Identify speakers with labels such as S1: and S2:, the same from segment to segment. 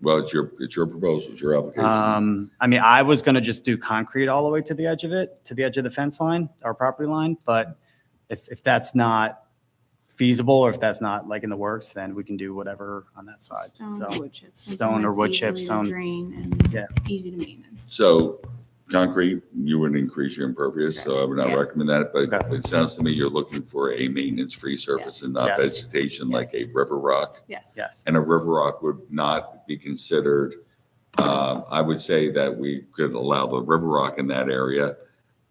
S1: Well, it's your, it's your proposal, it's your application.
S2: Um, I mean, I was gonna just do concrete all the way to the edge of it, to the edge of the fence line, our property line, but if, if that's not feasible, or if that's not like in the works, then we can do whatever on that side,
S3: Stone or
S2: so.
S3: wood chips. something
S2: stone or
S3: that's
S2: wood chips,
S3: easily
S2: stone-
S3: to Drain
S2: Yeah.
S3: and easy to maintenance.
S1: So concrete, you wouldn't increase your impervious, so I would not
S3: Yeah.
S1: recommend that. But
S2: Okay.
S1: it sounds to me you're looking for a maintenance-free surface
S3: Yes.
S1: and not
S2: Yes.
S1: vegetation like a
S3: Yes.
S1: river rock.
S3: Yes.
S2: Yes,
S1: and a river rock would not be considered. uh, I would say that we could allow the river rock in that area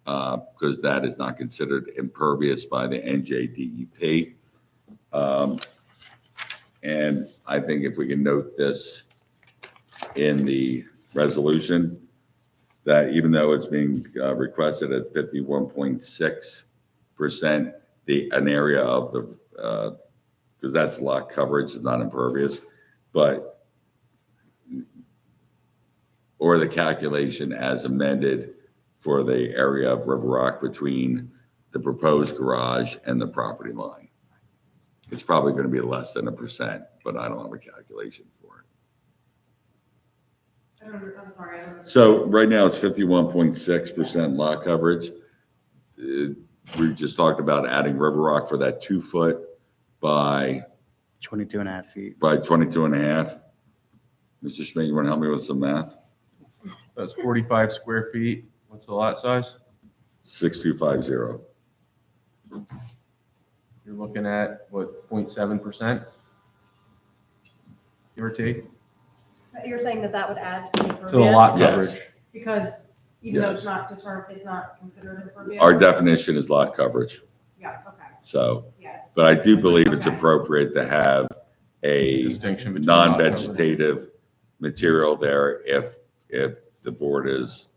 S1: uh, because that is not considered impervious by the NJDEP. E Um, And I think if we can note this in the resolution, that even though it's being uh, requested at 51.6%, the, an area of the uh, because that's lot coverage, it's not impervious, but or the calculation as amended for the area of River Rock between the proposed garage and the property line. It's probably going to be less than a percent, but I don't have a calculation for
S4: I don't, under- I'm sorry, I don't.
S1: it. So right now, it's fifty-one point six percent lot coverage. Uh, We just talked about adding River Rock for that two foot by
S2: 22 and a half feet.
S1: by 22 and a half. Mr. Schmidt, you want to help me with some math?
S5: That's forty-five square feet. What's the lot size?
S1: 6250.
S5: You're looking at, what, 0.7 percent? Give or take,
S4: You're saying that that would add to the
S5: to the lot
S4: impervious?
S1: Yes.
S5: coverage.
S4: Because even though it's
S1: Yes.
S4: not determined, it's not considered impervious?
S1: Our definition is lot coverage,
S4: Yeah, okay,
S1: so,
S4: yes.
S1: but I do believe it's appropriate to have a
S5: Distinction between. lot coverage.
S1: non-vegetative material there if, if the board is,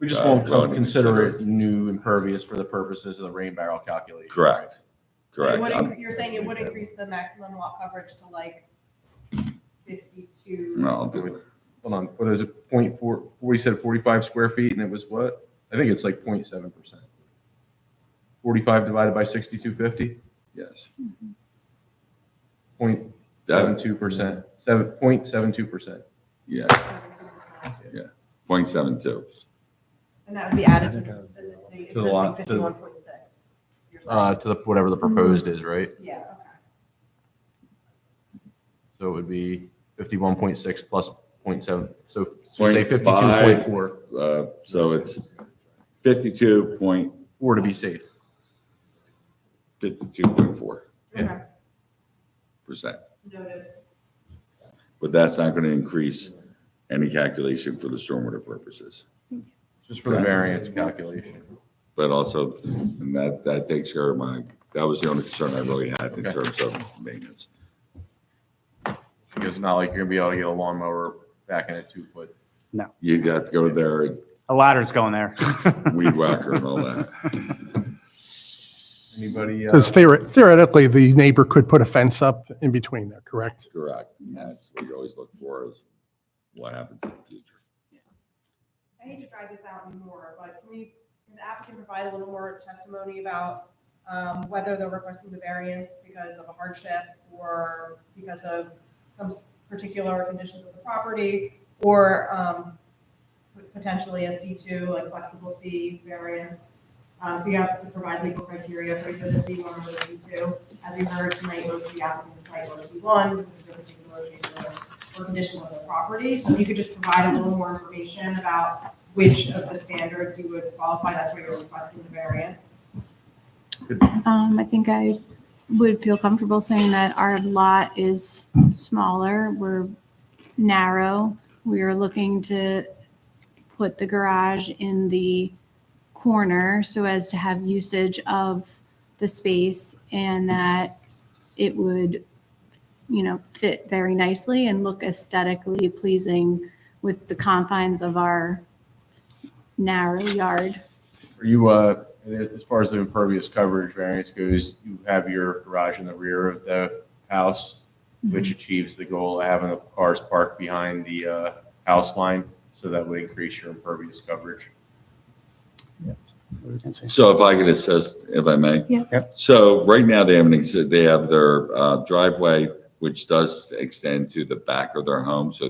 S5: We just won't
S1: uh, going
S5: co-
S1: to
S5: consider
S1: consider-
S5: it new impervious for the purposes of the rain barrel calculation.
S1: Correct.
S4: But it
S1: correct?
S4: would
S1: I'm-
S4: incre- You're saying it would increase the maximum lot coverage to like fifty-two?
S1: no, I'll do it.
S5: Hold on, what is it, point four, we said forty-five square feet and it was what? I think it's like 0.7 percent. Forty-five divided by sixty-two fifty,
S1: Yes.
S5: point seven
S1: That,
S5: two percent,
S1: Mm-hmm.
S5: seven, point seven two percent.
S1: yeah,
S4: And
S1: 0.72.
S4: that would be added to the- the
S5: uh, To
S4: existing
S5: the lot- to the-
S4: fifty-one point six?
S5: Uh, to the, whatever the proposed is, right?
S4: Yeah, okay.
S5: So it would be fifty-one point six plus point seven, so so
S1: Point
S5: say fifty-two point four,
S1: Uh, So it's 52.52.4.
S5: four to be safe. Yeah.
S4: Okay,
S1: percent.
S4: noted.
S1: But that's not going to increase any calculation for the stormwater purposes.
S5: Just for the
S1: Correct.
S5: variance calculation.
S1: But also, and that, that takes care of my, that was the only concern I really had in
S5: Okay.
S1: terms of maintenance.
S5: Because it's not like you're gonna be able to get a lawnmower back in a two-foot.
S1: You'd have to go there,
S2: A ladder's going there.
S1: weed whacker and all that.
S5: Anybody? uh,
S6: Because theoretically, the neighbor could put a fence up in between there, correct?
S1: Correct. That's what you always look for is what happens in the future.
S4: I hate to drag this out anymore, but can we, can the applicant provide a little more testimony about um, whether they're requesting the variance because of a hardship or because of some s- particular conditions of the property or um, potentially a C2, like flexible C variance? Um, So you have to provide legal criteria for either the C1 or the C2. As you heard tonight, most of the applicants tonight were C1 because of a particular change order or condition of the property. So if you could just provide a little more information about which of the standards you would qualify, that's where you're requesting the variance.
S3: Um, I think I would feel comfortable saying that our lot is smaller, we're narrow. We are looking to put the garage in the corner so as to have usage of the space and that it would, you know, fit very nicely and look aesthetically pleasing with the confines of our narrow yard.
S5: Are you, uh, as far as the impervious coverage variance goes, you have your garage in the rear of the house, which achieves the goal of having the cars parked behind the, uh, house line, so that would increase your impervious coverage.
S1: So if I could assist, if I may?
S3: Yeah.
S1: So right now, they have an, exi- they have their uh, driveway, which does extend to the back of their home, so